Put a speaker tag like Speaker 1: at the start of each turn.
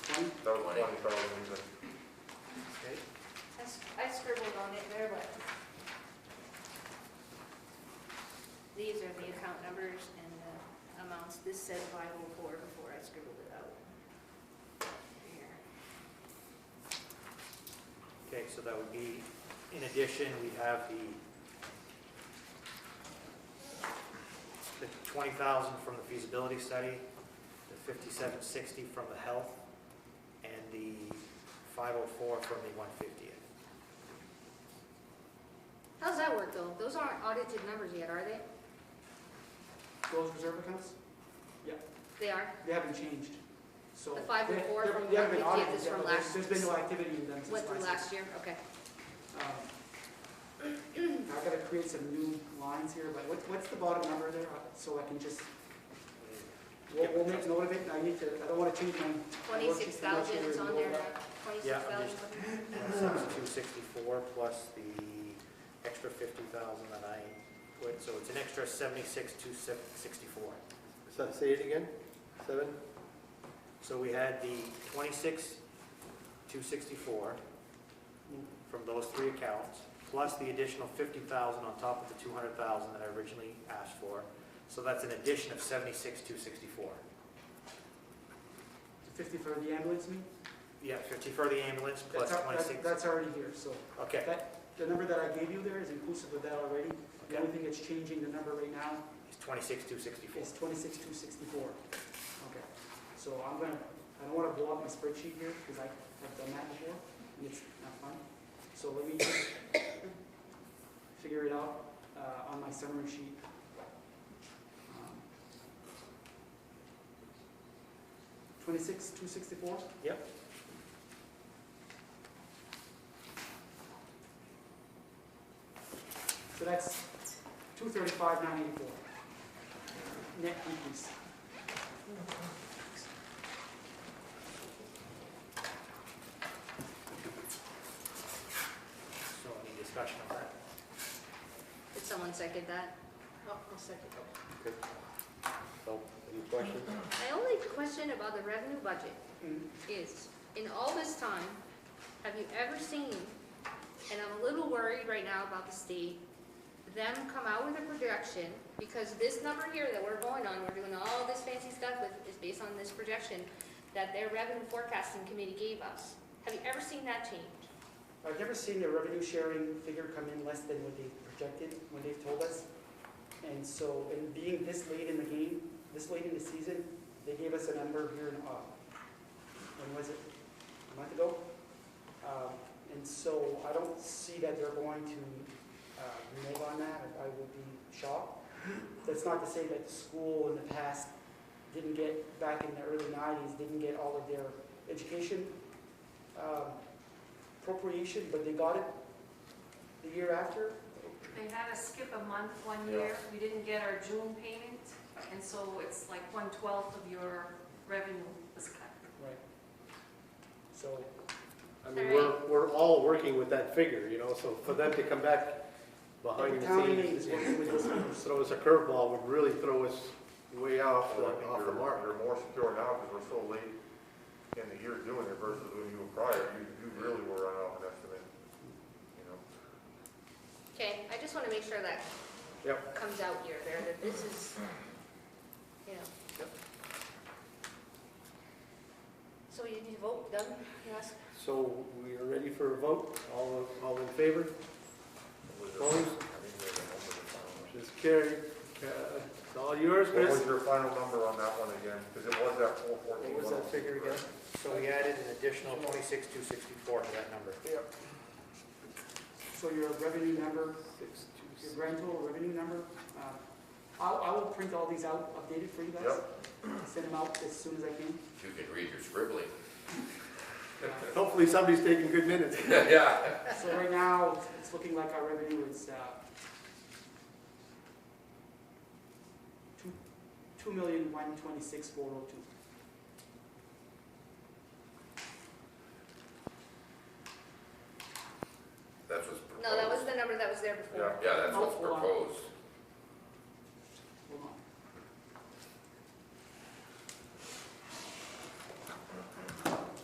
Speaker 1: Twenty.
Speaker 2: that was twenty thousand, but
Speaker 1: Okay.
Speaker 3: I s- I scribbled on it there, but these are the account numbers and the amounts. This said 504 before I scribbled it out. Here.
Speaker 1: Okay, so that would be, in addition, we have the, the twenty thousand from the feasibility study, the fifty-seven sixty from the health, and the five oh four from the one fiftieth.
Speaker 3: How's that work, though? Those aren't audited numbers yet, are they?
Speaker 4: Those reserve accounts,
Speaker 3: They are?
Speaker 4: they haven't changed, so.
Speaker 3: The 504
Speaker 4: they-
Speaker 3: from
Speaker 4: they haven't been
Speaker 3: 150
Speaker 4: audited
Speaker 3: is
Speaker 4: yet, but
Speaker 3: from
Speaker 4: there's-
Speaker 3: last-
Speaker 4: There's been no activity in them since
Speaker 3: Went through
Speaker 4: last
Speaker 3: last
Speaker 4: year.
Speaker 3: year? Okay.
Speaker 4: Um, I've got to create some new lines here, but what, what's the bottom number there, Uh, so I can just, we'll, we'll make note of it, I need to, I don't want to change my.
Speaker 3: 26,000 is on there now?
Speaker 1: Yeah, I'm
Speaker 3: 26,000?
Speaker 1: just- That's two sixty-four plus the extra fifty thousand that I put, so it's an extra seventy-six, two sixty-four.
Speaker 5: So say it again, seven?
Speaker 1: So we had the twenty-six, two sixty-four from those three accounts, plus the additional fifty thousand on top of the two hundred thousand that I originally asked for. So that's an addition of seventy-six, two sixty-four.
Speaker 4: Fifty for the ambulance, me?
Speaker 1: Yeah, fifty for the ambulance, plus
Speaker 4: That's al- that-
Speaker 1: twenty-six.
Speaker 4: That's already here, so
Speaker 1: Okay,
Speaker 4: that, the number that I gave you there is inclusive of that already. The
Speaker 1: okay,
Speaker 4: only thing that's changing the number right now
Speaker 1: it's twenty-six, two sixty-four.
Speaker 4: is twenty-six, two sixty-four. Okay, so I'm gonna, I don't wanna blow up my spreadsheet here, because I have done that before, and it's not fun. So let me just figure it out, uh, on my summary sheet. Um, Twenty-six, two sixty-four?
Speaker 1: Yep.
Speaker 4: So that's two thirty-five, nine eighty-four. Net increase.
Speaker 1: So any discussion on that?
Speaker 3: Did someone second that? Oh, I'll second it.
Speaker 5: Okay. So, any questions?
Speaker 3: My only question about the revenue budget
Speaker 4: Mm.
Speaker 3: is, in all this time, have you ever seen, and I'm a little worried right now about the state, them come out with a projection, because this number here that we're going on, we're doing all this fancy stuff with, is based on this projection that their revenue forecasting committee gave us. Have you ever seen that change?
Speaker 4: I've never seen the revenue sharing figure come in less than what they projected, when they've told us. And so, and being this late in the game, this late in the season, they gave us a number here in, uh, when was it? A month ago? Um, And so I don't see that they're going to uh, renege on that, I would be shocked. That's not to say that the school in the past didn't get, back in the early nineties, didn't get all of their education um, appropriation, but they got it the year after.
Speaker 6: They had us skip a month one year, we didn't get our June payment, and so it's like one-twelfth of your revenue was cut.
Speaker 4: Right. So,
Speaker 5: I mean, we're, we're all working with that figure, you know, so for them to come back behind
Speaker 4: the
Speaker 5: the
Speaker 4: town aid
Speaker 5: scenes
Speaker 4: is working with those
Speaker 5: and
Speaker 4: numbers.
Speaker 5: throw us a curveball would really throw us way off, the-
Speaker 2: I think
Speaker 5: off the
Speaker 2: you're,
Speaker 5: mark.
Speaker 2: you're more secure now because we're so late in the year doing it versus when you were prior, you, you really were on off an estimate, you know?
Speaker 3: Okay, I just wanna make sure that
Speaker 5: Yep.
Speaker 3: comes out here, there, that this is, you know. So you need to vote, done, yes?
Speaker 5: So we are ready for a vote, all, all in favor?
Speaker 2: With the-
Speaker 5: Well, we-
Speaker 2: I mean, with the number of times.
Speaker 5: Just carry, uh, it's all yours,
Speaker 2: What was
Speaker 5: Chris?
Speaker 2: your final number on that one again? Because it was that four fourteen.
Speaker 5: What
Speaker 2: oh
Speaker 5: was that figure again?
Speaker 1: So we added an additional twenty-six, two sixty-four to that number.
Speaker 4: So your revenue number,
Speaker 5: Six, two,
Speaker 4: your
Speaker 5: six.
Speaker 4: grand total revenue number, uh, I'll, I will print all these out, updated for you guys. Send them out as soon as I can.
Speaker 7: You can read your scribbling.
Speaker 4: Uh,
Speaker 5: Hopefully somebody's taking good minutes.
Speaker 7: Yeah.
Speaker 4: So right now, it's- it's looking like our revenue is, uh, two, two million, one twenty-six, four oh two.
Speaker 7: That's what's
Speaker 3: No, that was
Speaker 7: proposed.
Speaker 3: the number that was there before.
Speaker 7: Yeah, that's what's
Speaker 4: Oh, wow.
Speaker 7: proposed.